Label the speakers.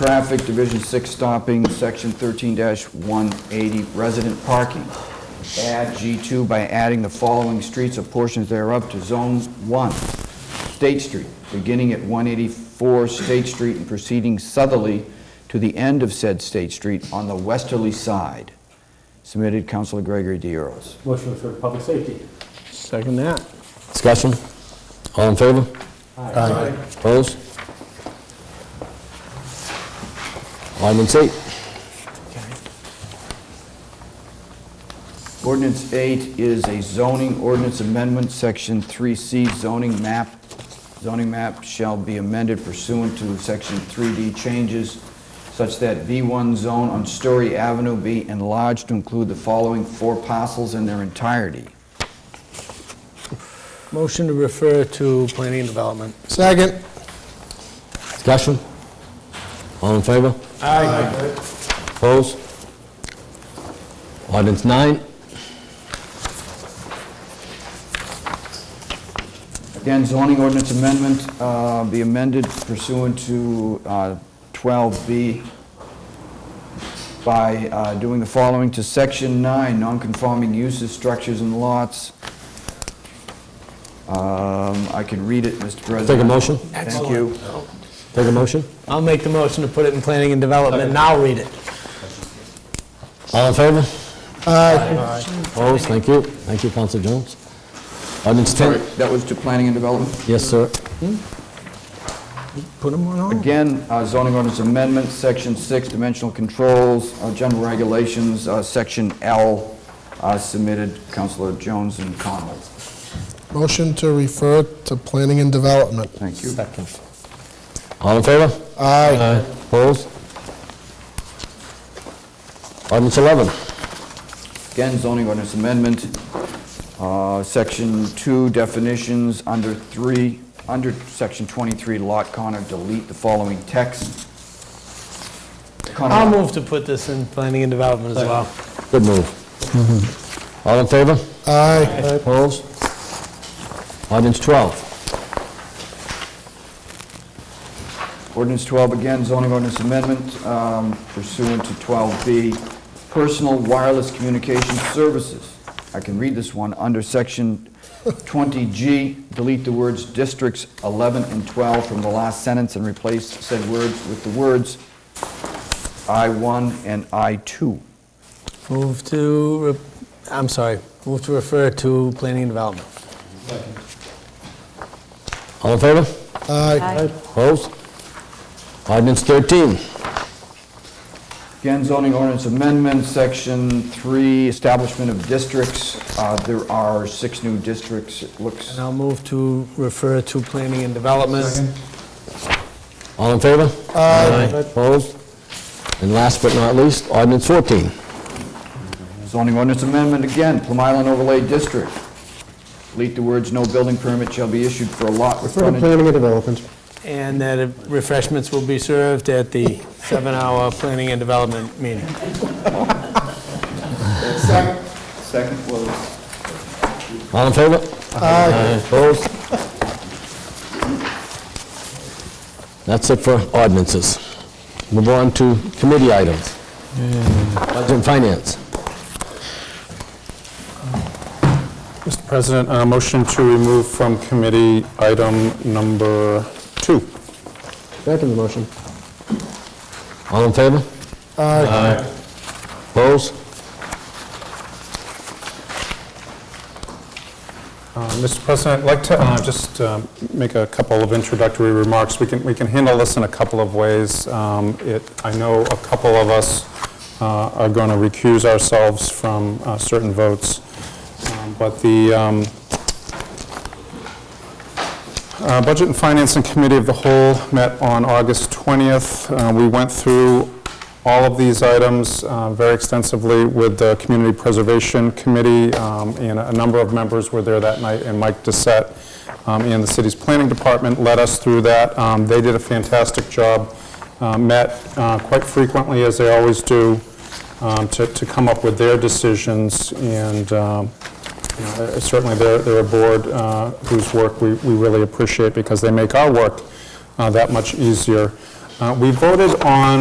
Speaker 1: traffic, Division 6 stopping, Section 13-180 resident parking. Add G2 by adding the following streets or portions thereof to Zone 1. State Street, beginning at 184 State Street and proceeding southerly to the end of said State Street on the westerly side. Submitted Councilor Gregory D. Earls.
Speaker 2: Motion for public safety.
Speaker 3: Second that.
Speaker 4: Discussion? All in favor? Aye. Opposed? Ordinance eight.
Speaker 1: Ordinance 8 is a zoning ordinance amendment, Section 3C zoning map. Zoning map shall be amended pursuant to Section 3D changes such that B1 zone on Story Avenue be enlarged to include the following four parcels in their entirety.
Speaker 3: Motion to refer to planning and development.
Speaker 4: Second. Discussion? All in favor? Aye. Opposed? Ordinance nine.
Speaker 1: Again, zoning ordinance amendment uh, be amended pursuant to uh, 12B by uh, doing the following to Section 9, nonconforming uses, structures, and lots. Um, I can read it, Mr. President.
Speaker 4: Take a motion.
Speaker 1: Thank you.
Speaker 4: Take a motion.
Speaker 3: I'll make the motion to put it in planning and development, and I'll read it.
Speaker 4: All in favor? Aye. Opposed? Thank you. Thank you, Counselor Jones. Ordinance
Speaker 1: Sorry,
Speaker 4: ten.
Speaker 1: That was to planning and development?
Speaker 4: Yes, sir.
Speaker 3: Put them on all.
Speaker 1: Again, uh, zoning ordinance amendment, Section 6, dimensional controls, uh, general regulations, uh, Section L, uh, submitted Counselor Jones and Connell.
Speaker 5: Motion to refer to planning and development.
Speaker 1: Thank you.
Speaker 4: All in favor?
Speaker 5: Aye.
Speaker 4: Opposed? Ordinance 11.
Speaker 1: Again, zoning ordinance amendment, uh, section two definitions, under three, under section 23 lot corner, delete the following text. Connor,
Speaker 3: I'll move to put this in planning and development as well.
Speaker 4: Good move. All in favor?
Speaker 5: Aye.
Speaker 4: Mm-hmm. Opposed? Ordinance 12.
Speaker 1: Ordinance 12, again, zoning ordinance amendment um, pursuant to 12B, personal wireless communication services. I can read this one, under section 20G, delete the words districts 11 and 12 from the last sentence and replace said words with the words I-1 and I-2.
Speaker 3: Move to, re- I'm sorry, move to refer to planning and development.
Speaker 4: All in favor?
Speaker 5: Aye.
Speaker 4: Opposed? Ordinance 13.
Speaker 1: Again, zoning ordinance amendment, section 3, establishment of districts. Uh, There are six new districts, it looks.
Speaker 3: And I'll move to refer to planning and development.
Speaker 4: All in favor? Aye. Opposed? And last but not least, ordinance 14.
Speaker 1: Zoning ordinance amendment again, Plum Island Overlay District. Delete the words, "No building permit shall be issued for a lot with frontage."
Speaker 6: Planning and Development.
Speaker 3: And that refreshments will be served at the seven-hour planning and development meeting.
Speaker 1: Second was...
Speaker 4: All in favor? Aye. Opposed? That's it for ordinances. Move on to committee items. Budget and Finance.
Speaker 6: Mr. President, a motion to remove from committee item number two.
Speaker 4: Second motion. All in favor?
Speaker 5: Aye.
Speaker 4: Opposed?
Speaker 6: Uh, Mr. President, I'd like to uh, just um, make a couple of introductory remarks. We can, we can handle this in a couple of ways. Um, It, I know a couple of us uh, are going to recuse ourselves from uh, certain votes, Um, but the, um, Uh, Budget and Financing Committee of the Whole met on August 20th. Uh, We went through all of these items uh, very extensively with the Community Preservation Committee, um, and a number of members were there that night, and Mike Dissett um, and the city's planning department led us through that. Um, They did a fantastic job, uh, met uh, quite frequently, as they always do, um, to to come up with their decisions, and um, you know, they're- Certainly, they're they're a board uh, whose work we we really appreciate because they make our work uh, that much easier. Uh, We voted on